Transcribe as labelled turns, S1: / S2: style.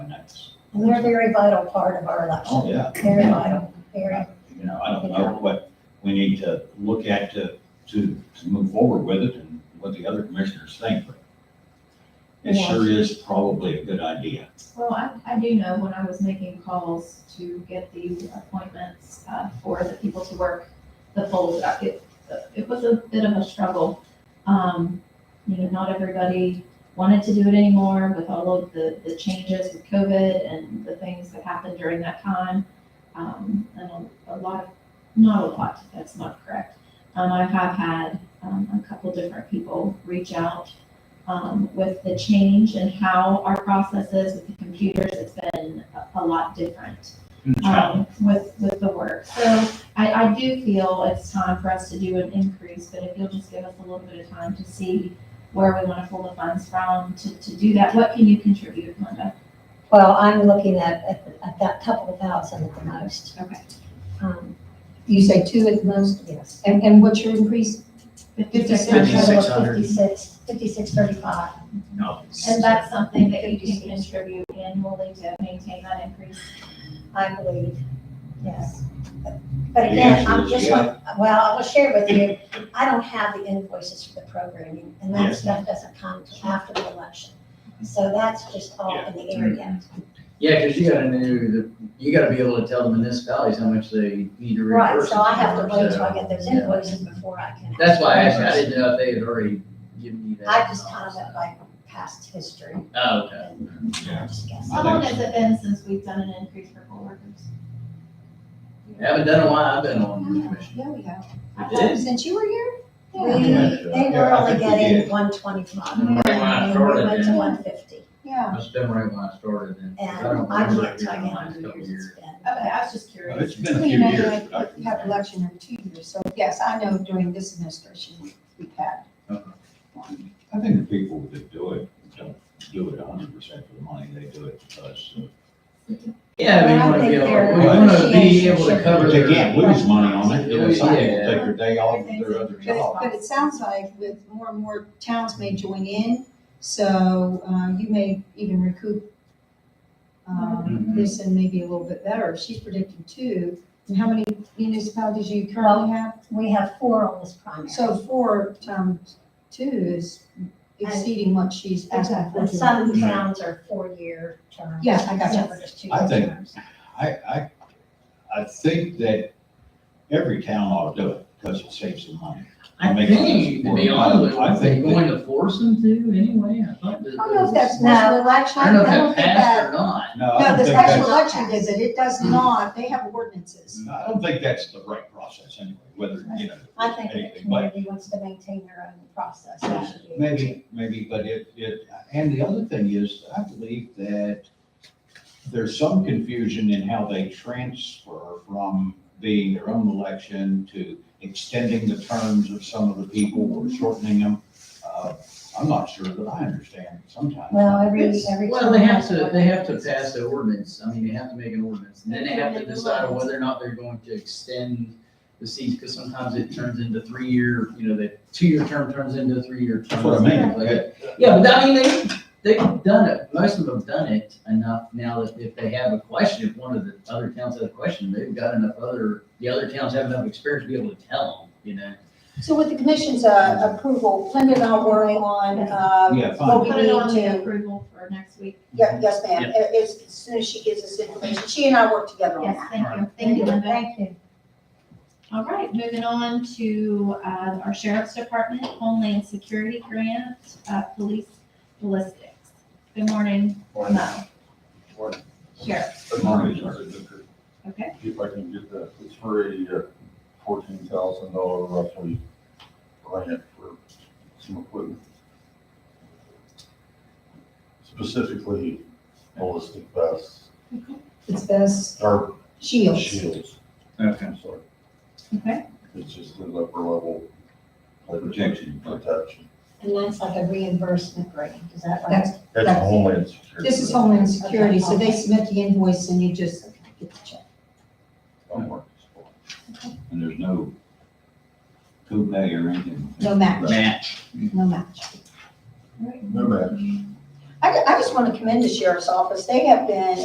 S1: minutes.
S2: And they're a very vital part of our election,
S1: Oh, yeah,
S2: very vital, very.
S1: you know, I don't know what we need to look at to, to, to move forward with it and what the other commissioners think, but it
S2: Yeah.
S1: sure is probably a good idea.
S3: Well, I, I do know when I was making calls to get the appointments, uh, for the people to work the polls, uh, it, it was a bit of a struggle. Um, you know, not everybody wanted to do it anymore with all of the, the changes with COVID and the things that happened during that time. Um, and a, a lot, of not a lot, that's not correct. Um, I have had, um, a couple different people reach out um, with the change and how our process is with the computers, it's been a- a lot different
S4: Uh,
S3: um, with, with the work. So I, I do feel it's time for us to do an increase, but if you'll just give us a little bit of time to see where we want to pull the funds from to, to do that, what can you contribute, Linda?
S2: Well, I'm looking at, at, at that couple of thousand at the most.
S3: Okay.
S2: Um, You say two at the most? Yes. And, and what's your increase? Fifty-six.
S5: Fifty-six hundred.
S2: Fifty-six, fifty-six thirty-five.
S5: No.
S3: And that's something that you can contribute annually to maintain that increase.
S2: I believe, yes.
S1: The
S2: But again,
S1: answer
S2: I'm
S1: is
S2: just,
S1: yeah.
S2: well, I will share with you, I don't have the invoices for the programming, and that
S1: Yes.
S2: stuff doesn't come till after the election. So that's just all in the air yet.
S5: Yeah, because you gotta know, the- you gotta be able to tell the municipalities how much they need to
S2: Right,
S5: reimburse.
S2: so I
S5: us
S2: have to
S5: for,
S2: wait till I
S5: so-
S2: get those
S5: yeah.
S2: invoices before I can.
S5: That's why I asked, I didn't know if they had already given you that.
S2: I just kind of went by past history,
S5: Oh, okay.
S2: and I just guessed.
S3: How long has it been since we've done an increase for poll workers?
S5: Haven't done it while I've been on the commission.
S3: There we go.
S5: It is.
S4: Since you were here?
S2: We,
S3: Yeah.
S2: they were
S1: Yeah, I
S2: only
S1: think we
S2: getting
S1: did. Mm-hmm.
S2: one twenty-five,
S3: Right
S2: and
S5: when I started
S2: we went to
S5: then.
S2: one fifty,
S4: Yeah.
S5: Must have been right when I started then.
S2: and
S5: don't
S2: I
S5: remember
S2: can't
S5: it being
S2: tell you
S5: the
S2: how
S5: last
S2: many
S5: couple
S2: years
S5: years.
S2: it's been.
S3: Okay, I was just
S1: Well,
S3: curious.
S1: It's been a
S4: You
S1: few
S4: know,
S1: years.
S4: like,
S1: but I can
S4: You have
S1: remember.
S4: election every two years, so yes, I know during this administration, we've had.
S5: Uh-huh.
S4: one.
S1: I think the people that do it, don't do it hundred percent for the money, they do it because. of-
S5: Yeah,
S2: But
S5: we
S2: I
S5: wanna be
S2: think
S5: able,
S2: their
S5: we wanna be
S2: appreciation
S5: able
S2: should
S5: to
S2: be-
S5: cover.
S1: But
S5: their-
S1: they can't lose money on it, you know, some people
S5: Yeah.
S1: take their day off of their other
S4: But it,
S1: job.
S4: but it sounds like with more and more towns may join in, so, uh, you may even recoup um,
S1: Mm-hmm.
S5: Mhm.
S4: this and maybe a little bit better. She's predicting two. And how many municipalities do you currently have?
S2: We have four on this primary.
S4: So four times two is exceeding what she's asking for.
S2: And some towns are four-year terms.
S4: Yeah, I got you.
S2: Some are just two-year
S1: I think-
S2: terms.
S1: I, I, I think that every town ought to do it because it saves them money.
S5: I think, to be honest with you,
S1: I
S5: are they
S1: think that-
S5: going to force them to anyway? I thought that.
S4: I don't know if that's
S2: No.
S4: special election,
S5: I don't know if
S4: I
S5: that
S4: don't think
S5: passed or
S4: that,
S5: not.
S1: No, I
S4: no,
S1: don't
S4: the
S1: think that's.
S4: special election does it, it does not, they have ordinances.
S1: I don't think that's the right process anyway, whether, you know.
S2: I think if the
S1: anything, but
S2: community wants to maintain their own process, they should be. able to.
S1: Maybe, maybe, but it, it, and the other thing is, I believe that there's some confusion in how they transfer from being their own election to extending the terms of some of the people or shortening them. Uh, I'm not sure that I understand sometimes.
S2: Well, every, every.
S5: Well, they
S2: town
S5: have
S2: has
S5: to,
S2: their
S5: they
S2: own
S5: have to
S2: process.
S5: pass the ordinance, I mean, they have to make an ordinance, and then they have to decide whether or not they're going to extend the seats, because sometimes it turns into three-year, you know, the two-year term turns into a three-year
S1: That's
S5: term.
S1: what I mean.
S5: Like, Yeah, but I mean, they, they've done it, most of them have done it enough now that if they have a question, if one of the other towns has a question, they've got enough other, the other towns have enough experience to be able to tell them, you know?
S4: So with the commission's, uh, approval, Linda and I will work on, uh,
S1: Yeah,
S4: what
S1: fine.
S4: we
S3: Put it
S4: need
S3: on
S4: to,
S3: the approval for next week.
S4: yeah, yes, ma'am,
S5: Yeah.
S4: A- as, as soon as she gives us information, she and I work together on
S3: Yes,
S4: that.
S3: thank
S5: All
S3: you, thank you, Linda.
S2: Thank you.
S3: All right, moving on to uh, our Sheriff's Department Homeland Security Grant, uh, Police Ballistics. Good morning,
S6: Morning.
S3: Mo.
S6: Morning.
S3: Sheriff,
S6: Good morning, Judge.
S3: okay?
S6: If I can get that, it's for a fourteen thousand dollar roughly grant for some equipment. Specifically ballistic vests,
S4: It's best
S6: or
S4: shields.
S6: shields,
S5: Okay.
S6: I'm sorry.
S3: Okay.
S6: It's just an upper level.
S1: Protection.
S6: Protection.
S2: And that's like a reimbursement grant, is that right?
S4: That's,
S6: That's
S4: That's-
S6: Homeland Security.
S4: this is Homeland Security, so they submit the invoice and you just get the check.
S6: Don't worry.
S1: And there's no coupe or anything.
S4: No match,
S5: Match.
S4: no match.
S6: No match.
S4: I, I just want to commend the sheriff's office. They have been